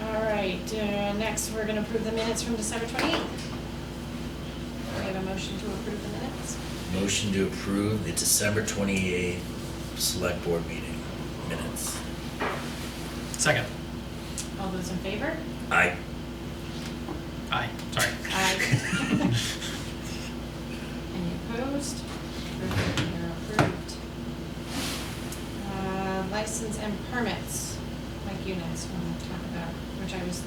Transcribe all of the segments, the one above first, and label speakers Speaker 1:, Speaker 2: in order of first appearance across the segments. Speaker 1: right, uh, next, we're gonna approve the minutes from December twenty-eighth. We have a motion to approve the minutes.
Speaker 2: Motion to approve the December twenty-eighth select board meeting minutes.
Speaker 3: Second.
Speaker 1: All those in favor?
Speaker 2: I,
Speaker 3: Aye, sorry.
Speaker 1: Aye. Any opposed? Approved, they're approved. Uh, License and permits, Mike, you next want to talk about, which I was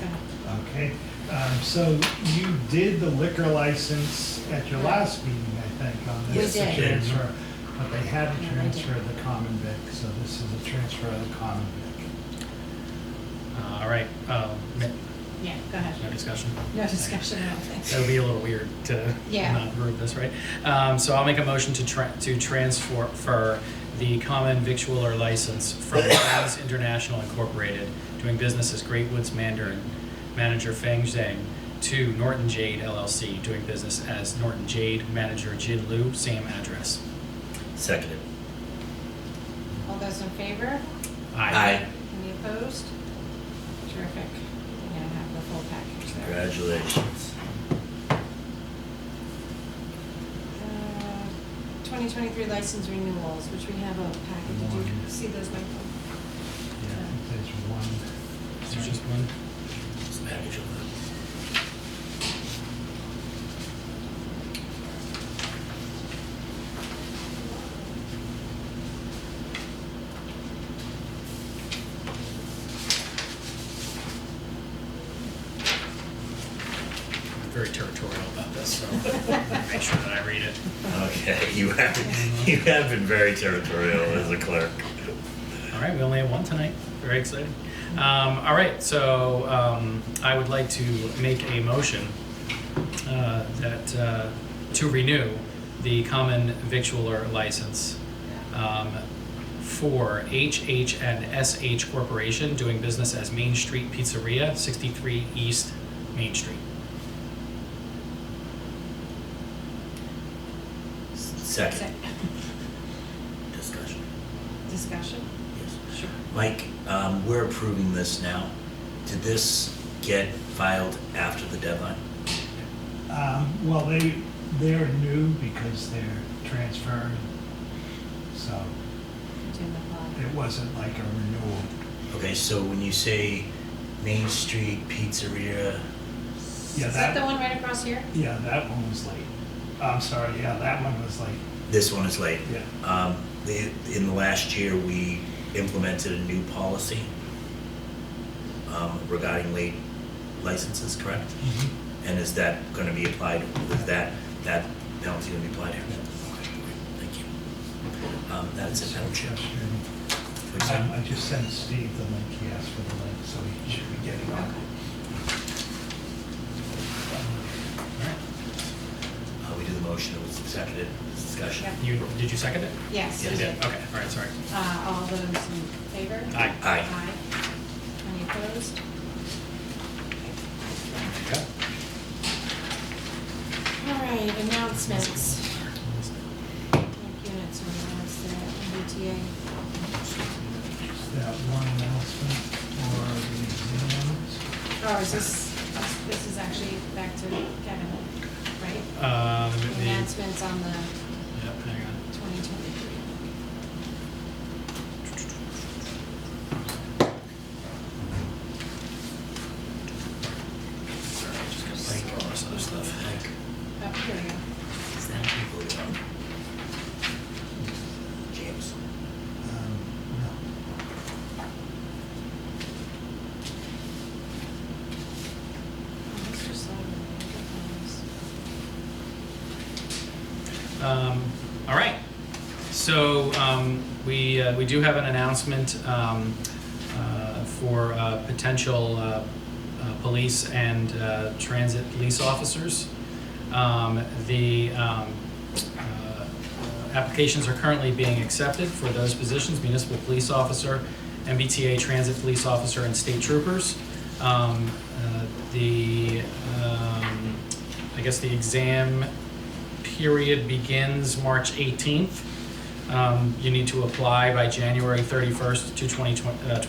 Speaker 1: gonna,
Speaker 4: Okay, um, so you did the liquor license at your last meeting, I think, on this.
Speaker 1: We
Speaker 4: the
Speaker 1: did.
Speaker 4: transfer, But they had to
Speaker 1: Yeah, they
Speaker 4: transfer
Speaker 1: did.
Speaker 4: the common vic, so this is a transfer of the common vic.
Speaker 3: Uh, All right, um, mi-
Speaker 1: yeah, go
Speaker 3: no
Speaker 1: ahead.
Speaker 3: discussion.
Speaker 1: No discussion, I don't think.
Speaker 3: That would be a little weird to
Speaker 1: Yeah.
Speaker 3: not approve this, right? Um, So I'll make a motion to tra- to transfer for the common victualler license from Fangs International Incorporated, doing business as Great Woods Mandarin, manager Feng Zhang, to Norton Jade LLC, doing business as Norton Jade, manager Jin Lu, same address.
Speaker 2: seconded.
Speaker 1: All those in favor?
Speaker 2: Aye.
Speaker 1: Any opposed? Terrific. You're gonna have the full package there.
Speaker 2: Congratulations.
Speaker 1: Uh, 2023 license renewals, which we have a packet. Did you
Speaker 4: One.
Speaker 1: see those, Michael?
Speaker 4: Yeah, I think there's one.
Speaker 3: Is there just one?
Speaker 2: It's a package of
Speaker 3: very territorial about this, so make sure that I read it.
Speaker 2: them. Okay, you have, you have been very territorial as a clerk.
Speaker 3: All right, we only have one tonight. Very exciting. Um, all right, so um, I would like to make a motion uh, that uh, to renew the common victualler license um, for HH and SH Corporation doing business as Main Street Pizzeria, 63 East Main Street.
Speaker 2: Second, discussion,
Speaker 1: Discussion?
Speaker 2: yes.
Speaker 1: Sure.
Speaker 2: Mike, um, we're approving this now. Did this get filed after the deadline?
Speaker 4: Um, well, they, they're new because they're transferred, so
Speaker 1: Agenda five.
Speaker 4: it wasn't like a renewal.
Speaker 2: Okay, so when you say Main Street Pizzeria,
Speaker 4: Yeah,
Speaker 1: Is that the
Speaker 4: that,
Speaker 1: one right across here?
Speaker 4: yeah, that one was late. I'm sorry, yeah, that one was late,
Speaker 2: this one is late.
Speaker 4: yeah.
Speaker 2: Um, the, in the last year, we implemented a new policy um, regarding late licenses, correct?
Speaker 1: Mm-hmm.
Speaker 2: And is that gonna be applied, is that, that penalty gonna be applied here? Okay, Thank you. Um, that's it, Madam Chair.
Speaker 4: Sure. Um, I just sent Steve the link, he asked for the link, so he should be getting
Speaker 1: Okay.
Speaker 4: on.
Speaker 3: All right.
Speaker 2: Uh, we did the motion, it was seconded, discussion.
Speaker 1: Yeah.
Speaker 3: You, did you second it?
Speaker 1: Yes.
Speaker 2: Yes.
Speaker 1: you did.
Speaker 3: Okay, all right, sorry.
Speaker 1: Uh, All those in favor?
Speaker 3: Aye.
Speaker 2: Aye.
Speaker 1: Aye. Any opposed?
Speaker 3: Okay.
Speaker 1: All right, announcements. Like units or announcements, the MBTA.
Speaker 4: Is that one announcement or the exams?
Speaker 1: Oh, is this, this is actually back to Kevin, right?
Speaker 3: Um, the-
Speaker 1: Announcements on the
Speaker 3: Yep, hang on.
Speaker 1: 2023.
Speaker 3: Sorry, I just gotta
Speaker 2: Mike,
Speaker 3: throw all this other stuff.
Speaker 2: Mike,
Speaker 1: Oh, here we go.
Speaker 2: is that who voted on? James?
Speaker 4: Um, No.
Speaker 1: Oh, This just all the different ones.
Speaker 3: Um, all right. So um, we uh, we do have an announcement um, uh, for uh, potential uh, uh, police and uh, transit police officers. Um, the um, uh, applications are currently being accepted for those positions: municipal police officer, MBTA transit police officer, and state troopers. Um, uh, the um, I guess the exam period begins March 18th. Um, You need to apply by January 31st to 2020, uh,